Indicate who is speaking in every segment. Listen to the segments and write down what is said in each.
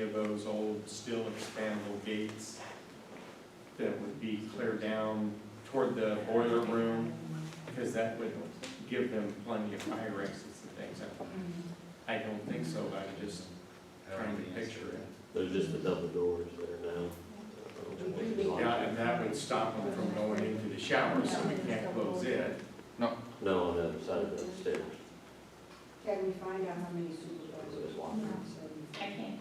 Speaker 1: of those old steel expandable gates that would be cleared down toward the boiler room, because that would give them plenty of fire exits and things. I I don't think so, I'm just trying to picture it.
Speaker 2: There's just a couple doors there now.
Speaker 1: Yeah, and that would stop them from going into the shower, so we can't close it.
Speaker 2: No, on the other side of the stairs.
Speaker 3: Can we find out how many supervisors walk out? so-
Speaker 4: I can't.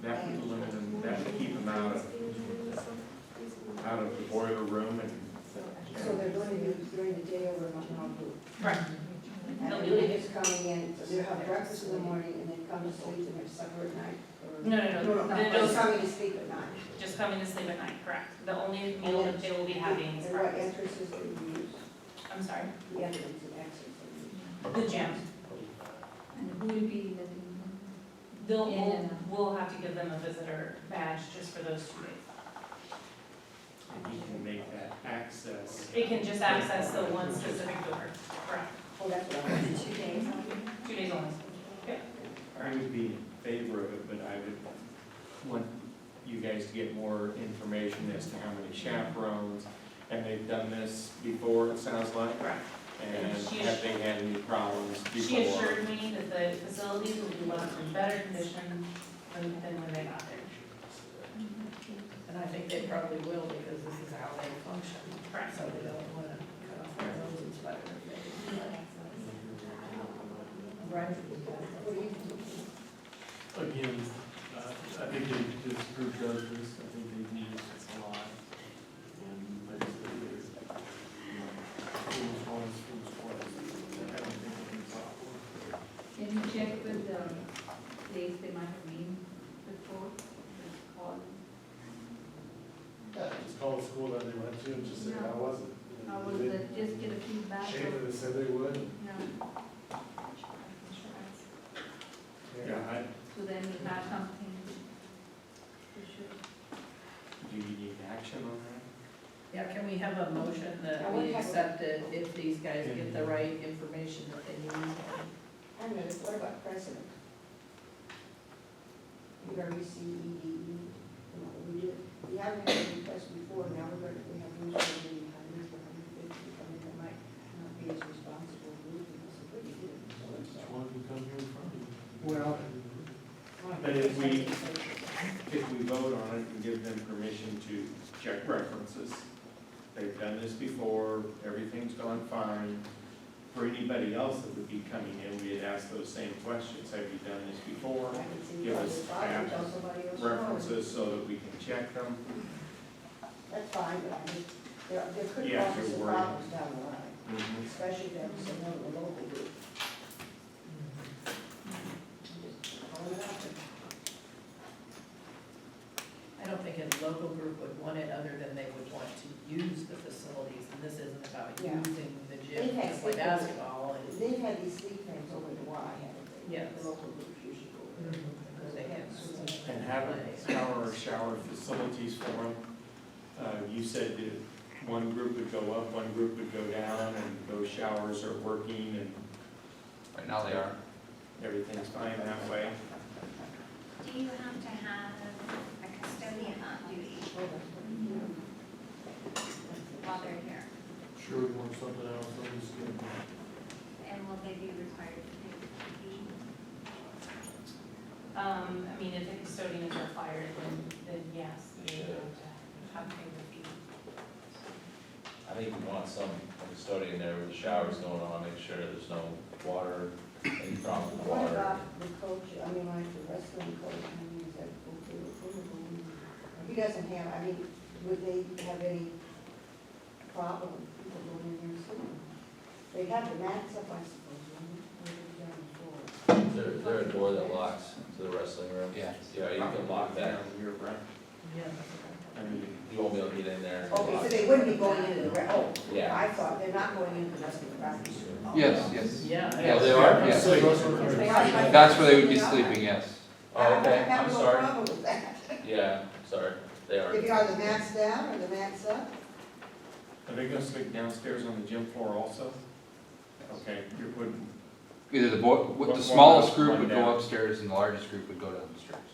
Speaker 1: That would limit them, that would keep them out of, out of the boiler room and
Speaker 3: So they're going to be during the day over at Mount Hope.
Speaker 4: Right.
Speaker 5: Mm-hmm.
Speaker 3: And
Speaker 4: They'll
Speaker 3: they're
Speaker 4: do
Speaker 3: really
Speaker 4: it.
Speaker 3: just coming in, so they'll have breakfast in the morning and then come to sleep and have supper at night? or-
Speaker 4: No, no, no, they're
Speaker 3: They're
Speaker 4: just,
Speaker 3: coming to sleep at night.
Speaker 4: just coming to sleep at night, correct. The only meal that they will be having is
Speaker 3: And what
Speaker 4: breakfast.
Speaker 3: entrances do you use?
Speaker 4: I'm sorry,
Speaker 3: The entrance and exits.
Speaker 4: the gym.
Speaker 5: And who would be
Speaker 4: They'll,
Speaker 5: Yeah,
Speaker 4: we'll,
Speaker 5: yeah.
Speaker 4: we'll have to give them a visitor badge just for those two days.
Speaker 1: and you can make that access.
Speaker 4: It can just access the one specific door, correct?
Speaker 3: Oh, that's what I was.
Speaker 5: the two days?
Speaker 4: Two days only.
Speaker 1: I would be in favor of it, but I would want you guys to get more information as to how many chaperones, and they've done this before, it sounds like,
Speaker 4: Correct.
Speaker 1: and have they had any problems
Speaker 4: She
Speaker 1: before?
Speaker 4: assured me that the facilities will be left in better condition than, than when they got there.
Speaker 6: And I think they probably will because this is how they function,
Speaker 4: Correct.
Speaker 6: so they don't wanna cut off their noses and spite their face. Right.
Speaker 3: What do you
Speaker 7: Again, uh, I think they just proved others, I think they need us a lot. And like, it's, you know, schools once, schools twice, I don't think it's a problem.
Speaker 5: Can you check with the place they might have been before, the call?
Speaker 7: Yeah, just call the school that they went to and just say, how was it? And
Speaker 5: How was
Speaker 7: they-
Speaker 5: that, just get a feedback?
Speaker 7: Shame
Speaker 5: or-
Speaker 7: that they said they would.
Speaker 5: No.
Speaker 1: Yeah, I,
Speaker 5: So then we have something to show.
Speaker 1: do you need action on
Speaker 6: Yeah, can we have a motion that we accept it if these guys get the right information that they need?
Speaker 3: I don't know, what about president? We already see EDE, E. you know, we did, we haven't had E any requests before, now we're gonna, we have news for the hundreds, we're hundred fifty, I mean, that might not be as responsible group, because it's pretty good.
Speaker 7: Just wanted to come here in front of you.
Speaker 1: Well- But if we- that? If we vote on it and give them permission to check references, they've done this before, everything's gone fine. For anybody else that would be coming in, we'd ask those same questions, have you done this before? give us app references so that we can check them.
Speaker 3: That's fine, but I mean, there, there could be
Speaker 1: Yeah, if
Speaker 3: some
Speaker 1: you're worried.
Speaker 3: problems down the line, especially if there's another local group. Just throwing it out there.
Speaker 6: I don't think a local group would want it other than they would want to use the facilities, and this isn't about
Speaker 3: Yeah.
Speaker 6: using the gym
Speaker 3: They've had
Speaker 6: to play
Speaker 3: sleepovers.
Speaker 6: basketball and.
Speaker 3: They've had these sleep things over the Y, haven't they?
Speaker 6: Yes.
Speaker 3: The Local groups usually go over there.
Speaker 6: Because they have so much.
Speaker 1: And have a shower or shower facilities for them. Uh, you said that one group would go up, one group would go down, and those showers are working and
Speaker 8: Right now they are.
Speaker 1: everything's fine that way.
Speaker 9: Do you have to have a custodian on duty while they're here?
Speaker 7: Sure, we want something else, I'm just gonna.
Speaker 9: And will they be required to pay the fee?
Speaker 4: Um, I mean, if the custodians are fired, then, then yes, they would have to have paid the fee.
Speaker 8: I think we want some custodian there with the showers going on, make sure there's no water, any problem with
Speaker 3: What
Speaker 8: water.
Speaker 3: about the coach, I mean, like the wrestling coach, I mean, is that okay with him? He doesn't have, I mean, would they have any problem with people going in there and sleeping? They have the mats up, I suppose, wouldn't they? Or they're down the floor.
Speaker 2: Is there, is there a door that locks to the wrestling room?
Speaker 8: Yeah.
Speaker 2: Yeah, you can lock that.
Speaker 1: You're right.
Speaker 6: Yeah.
Speaker 1: I mean,
Speaker 8: You won't be able to get in there. It's
Speaker 3: Okay, so
Speaker 8: locked.
Speaker 3: they wouldn't be going into the, re- oh,
Speaker 8: Yeah.
Speaker 3: I thought they're not going into the wrestling practice room. Oh,
Speaker 8: Yes,
Speaker 3: no.
Speaker 8: yes.
Speaker 6: Yeah.
Speaker 8: Yeah, they are,
Speaker 7: Yeah,
Speaker 8: yes.
Speaker 7: so those are-
Speaker 3: They are-
Speaker 8: That's where they would be sleeping, yes.
Speaker 3: I-
Speaker 8: Oh, okay,
Speaker 3: I have
Speaker 8: I'm
Speaker 3: no
Speaker 8: sorry.
Speaker 3: problem with that.
Speaker 8: Yeah, sorry, they are.
Speaker 3: If you are the mats down or the mats up,
Speaker 1: Are they gonna sleep downstairs on the gym floor also? Okay, you're putting,
Speaker 8: Either the board,
Speaker 1: the smallest group would go
Speaker 8: upstairs and the largest group would go downstairs.